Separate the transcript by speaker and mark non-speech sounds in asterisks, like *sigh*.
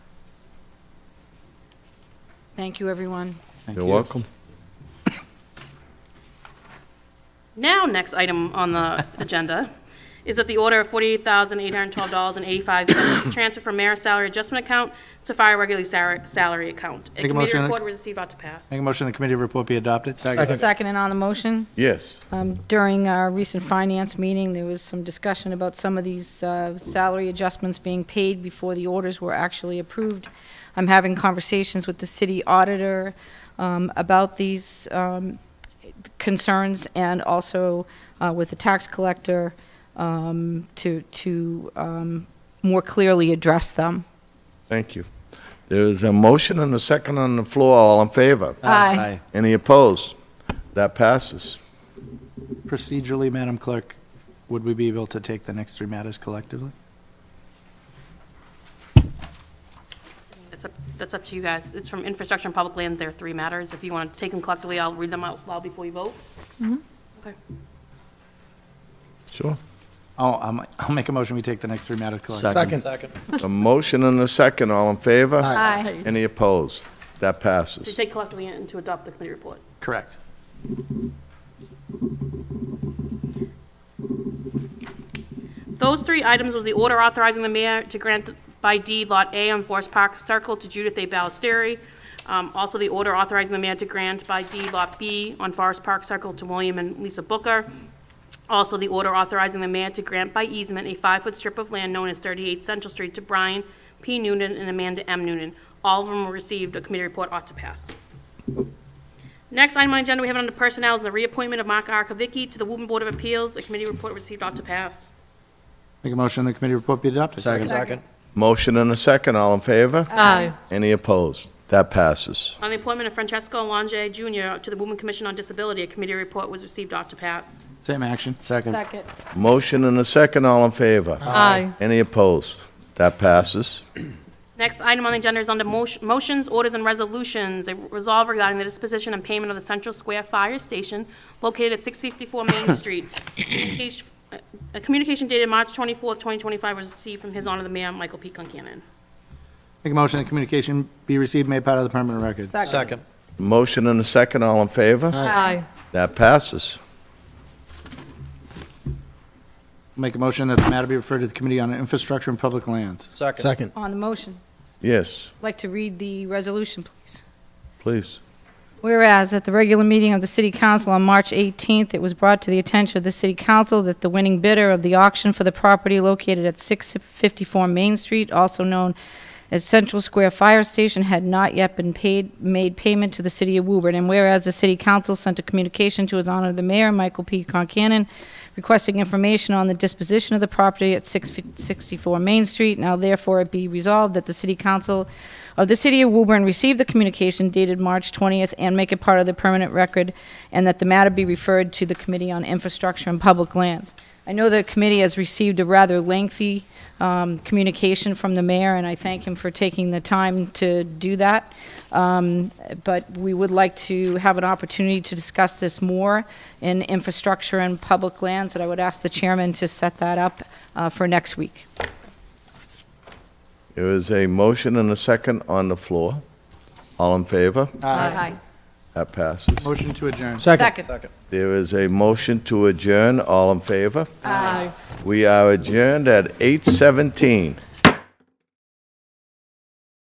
Speaker 1: Thank you, everyone.
Speaker 2: Thank
Speaker 3: You're
Speaker 2: you.
Speaker 3: welcome.
Speaker 4: Now, next item on
Speaker 2: *laughs*
Speaker 4: the agenda is that the order of $48,812.85 transfer from mayor's salary adjustment account to fire regular sal- salary account. A
Speaker 2: Make a
Speaker 4: committee
Speaker 2: motion.
Speaker 4: report was received out to pass.
Speaker 2: Make a motion the committee report be adopted. Second.
Speaker 1: Second and on the motion,
Speaker 3: Yes.
Speaker 1: um, during our recent finance meeting, there was some discussion about some of these uh, salary adjustments being paid before the orders were actually approved. I'm having conversations with the city auditor um, about these um, concerns and also uh, with the tax collector um, to, to um, more clearly address them.
Speaker 3: Thank you. There is a motion and a second on the floor. All in favor?
Speaker 1: Aye.
Speaker 3: Any opposed? That passes.
Speaker 2: Procedurally, Madam Clerk, would we be able to take the next three matters collectively?
Speaker 4: It's up- That's up to you guys. It's from infrastructure and public land. There are three matters. If you want to take them collectively, I'll read them out loud before you vote. Okay.
Speaker 3: Sure.
Speaker 2: Oh, I'm- I'll make a motion we take the next three matters collectively.
Speaker 5: Second.
Speaker 3: A motion and a second. All in favor?
Speaker 1: Aye.
Speaker 3: Any opposed? That
Speaker 4: To
Speaker 3: passes.
Speaker 4: take collectively and to adopt the committee report.
Speaker 2: Correct.
Speaker 4: Those three items was the order authorizing the mayor to grant by deed Lot A on Forest Park Circle to Judith A. Ballesteri. Um, Also, the order authorizing the mayor to grant by deed Lot B on Forest Park Circle to William and Lisa Booker. Also, the order authorizing the mayor to grant by easement a five-foot strip of land known as 38 Central Street to Brian P. Noonan and Amanda M. Noonan. All of them were received. A committee report ought to pass. Next item on the agenda we have under personnel is the reappointment of Mark Arkavicki to the Woburn Board of Appeals. A committee report received ought to pass.
Speaker 2: Make a motion the committee report be adopted.
Speaker 5: Second.
Speaker 3: Motion and a second. All in favor?
Speaker 1: Aye.
Speaker 3: Any opposed? That passes.
Speaker 4: On the appointment of Francesco Alonje Jr. to the Women Commission on Disability, a committee report was received off to pass.
Speaker 2: Same action.
Speaker 5: Second.
Speaker 1: Second.
Speaker 3: Motion and a second. All in favor?
Speaker 1: Aye.
Speaker 3: Any opposed? That passes.
Speaker 4: Next item on the agenda is under motion- motions, orders, and resolutions. A resolve regarding the disposition and payment of the Central Square Fire Station located at 654 Main Street. Communication- uh, A communication dated March 24th, 2025 was received from His Honor the Mayor, Michael P. Concanon.
Speaker 2: Make a motion the communication be received, made part of the permanent record.
Speaker 5: Second.
Speaker 3: Motion and a second. All in favor?
Speaker 1: Aye.
Speaker 3: That passes.
Speaker 2: Make a motion that the matter be referred to the Committee on Infrastructure and Public Lands.
Speaker 5: Second.
Speaker 1: On the motion,
Speaker 3: Yes,
Speaker 1: I'd like to read the resolution, please.
Speaker 3: please.
Speaker 1: Whereas at the regular meeting of the City Council on March 18th, it was brought to the attention of the City Council that the winning bidder of the auction for the property located at 654 Main Street, also known as Central Square Fire Station, had not yet been paid, made payment to the City of Woburn. And whereas the City Council sent a communication to His Honor the Mayor, Michael P. Concanon, requesting information on the disposition of the property at 664 Main Street. Now therefore it be resolved that the City Council of the City of Woburn receive the communication dated March 20th and make it part of the permanent record, and that the matter be referred to the Committee on Infrastructure and Public Lands. I know the committee has received a rather lengthy um, communication from the mayor, and I thank him for taking the time to do that. Um, But we would like to have an opportunity to discuss this more in infrastructure and public lands, and I would ask the chairman to set that up uh, for next week.
Speaker 3: There is a motion and a second on the floor. All in favor?
Speaker 1: Aye.
Speaker 3: That passes.
Speaker 2: Motion to adjourn.
Speaker 1: Second.
Speaker 3: There is a motion to adjourn. All in favor?
Speaker 1: Aye.
Speaker 3: We are adjourned at 8:17.